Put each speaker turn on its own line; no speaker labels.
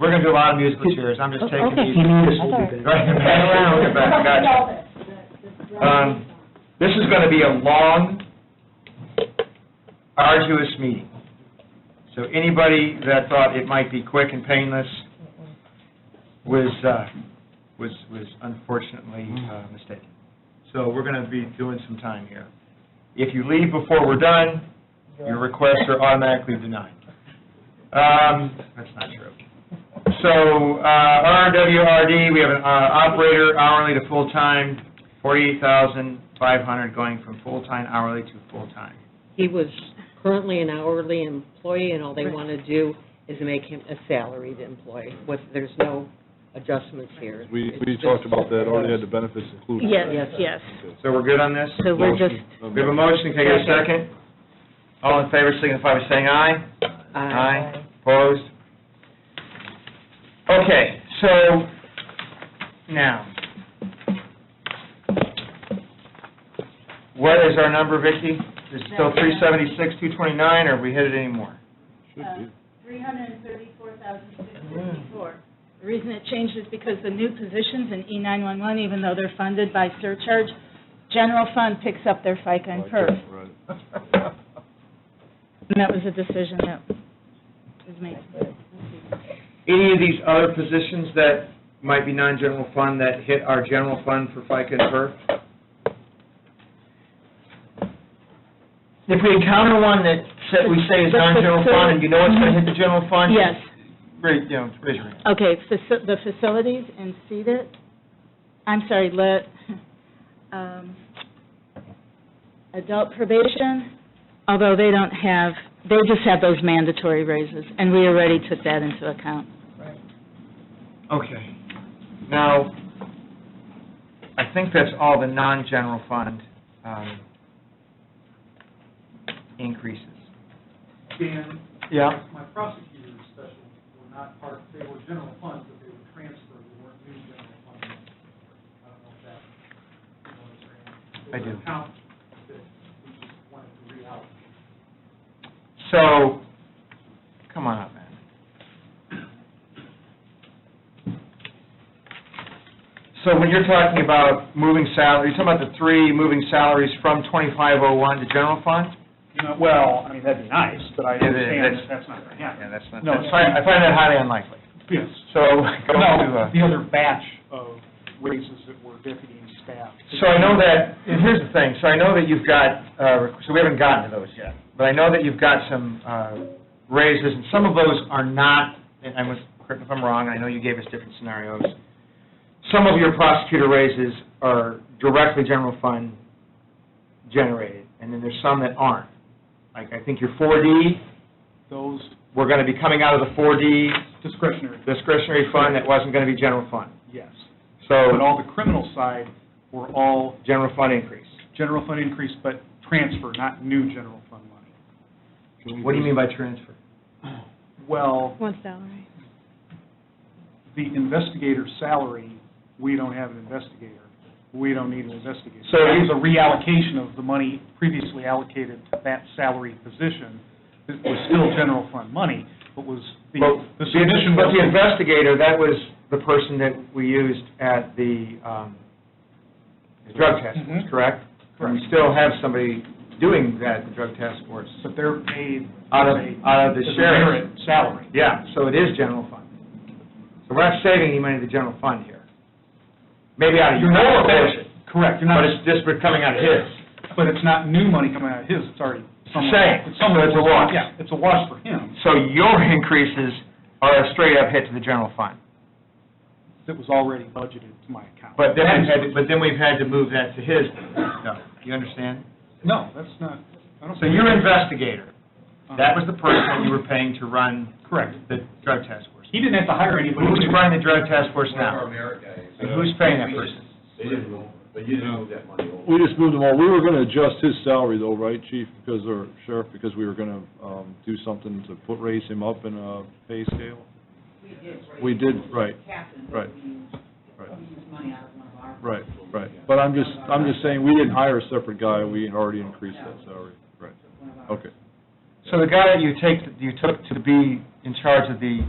We're gonna do a lot of musical chairs, I'm just taking
Okay.
these.
That's all right.
Right, back around, get back, gotcha. Um, This is gonna be a long, arduous meeting. So anybody that thought it might be quick and painless was, uh, was, was unfortunately uh, mistaken. So we're gonna be doing some time here. If you leave before we're done, your requests are automatically denied. Um, that's not true. So, uh, RWRD, we have an uh, operator hourly to full-time, forty-eight thousand five hundred going from full-time hourly to full-time.
He was currently an hourly employee, and all they want to do is make him a salaried employee, with, there's no adjustments here.
We,
It's
we
just-
talked about that, already had the benefits included.
Yes,
Yes.
yes.
So we're good on this?
So we're just,
We have a motion, can I get a second? All in favor, signify by saying aye.
Uh, Aye.
Aye, opposed? Okay, so, now, what is our number, Vicki? Is it still three seventy-six, two twenty-nine, or have we hit it anymore?
Should
Three hundred and thirty-four thousand six fifty-four. The reason it changed is because the new positions in E nine-one-one, even though they're funded by surcharge, general fund picks up their FICA
be.
and
Like
PERF.
that, Right.
And that was a decision that was made.
Any of these other positions that might be non-general fund that hit our general fund for FICA and PERF? If we encounter one that sa- we say is non-general fund, and you know it's gonna hit the general fund?
Yes,
Raise, you know, raise your hand.
okay, faci- the facilities in CDIT, I'm sorry, let, um, adult probation, although they don't have, they just have those mandatory raises, and we already took that into account.
Okay. Now, I think that's all the non-general fund um, increases.
Dan,
Yeah.
my prosecutor special were not part, they were general funds, but they were transferred, they weren't new general funds. I don't know if that, you know what I'm saying?
I
It was
do.
an account that we just wanted to reallocate.
So, come on up, man. So when you're talking about moving salary, you're talking about the three moving salaries from 2501 to general fund?
You know, well, I mean, that'd be nice, but I
It is, that's-
understand that that's not gonna happen.
that's not.
No,
I find I find that highly unlikely.
Yes.
So, go to, uh,
No, the other batch of raises that were deputy and staff.
So I know that, and here's the thing, so I know that you've got, uh, so we haven't gotten to those yet, but I know that you've got some uh, raises, and some of those are not, and I was, correct me if I'm wrong, and I know you gave us different scenarios. Some of your prosecutor raises are directly general fund generated, and then there's some that aren't. Like, I think your 4D,
Those
we're going to be coming out of the 4D
discretionary,
discretionary fund that wasn't going to be general fund.
yes. But
So,
all the criminal side were all
general fund increase.
general fund increase, but transfer, not new general fund money.
What do you mean by transfer?
Well,
one salary.
the investigator's salary, we don't have an investigator. We don't need an investigator.
So
That
you-
was a reallocation of the money previously allocated to that salary position that was still general fund money, but was the,
But
the submission
But the
was,
investigator, that was the person that we used at the um, drug task force,
Mhm.
Mm-hmm. correct? And We
Correct.
still have somebody doing that, at the drug task force.
but they're paid
Out of-
as a-
out of the
as a
sheriff.
merit salary.
Yeah, so it is general fund. So we're not saving any money to general fund here. Maybe out of your
You're not-
portion,
Correct, you're
but
not,
it's just, we're coming out of his.
but it's not new money coming out of his, it's already somewhere.
Same, so it's a wash.
Yeah, it's a wash for him.
So your increases are a straight-up hit to the general fund.
That was already budgeted to my account.
But then we've had, but then we've had to move that to his. No, You understand?
No, that's not, I don't.
So your investigator, that was the
Uh,
person that you were paying to run
Correct.
the drug task force.
He didn't have to hire anybody.
Who's running the drug task force
One of our
now?
merit guys.
And who's paying that person?
They didn't move, but you didn't move that money over.
We just moved them all, we were gonna adjust his salary though, right, chief, because, or sheriff, because we were gonna, um, do something to put, raise him up in a pay scale? We did, right, right, right. Right, right, but I'm just, I'm just saying, we didn't hire a separate guy, we already increased that salary, right, okay.
So the guy that you take, you took to be in charge of the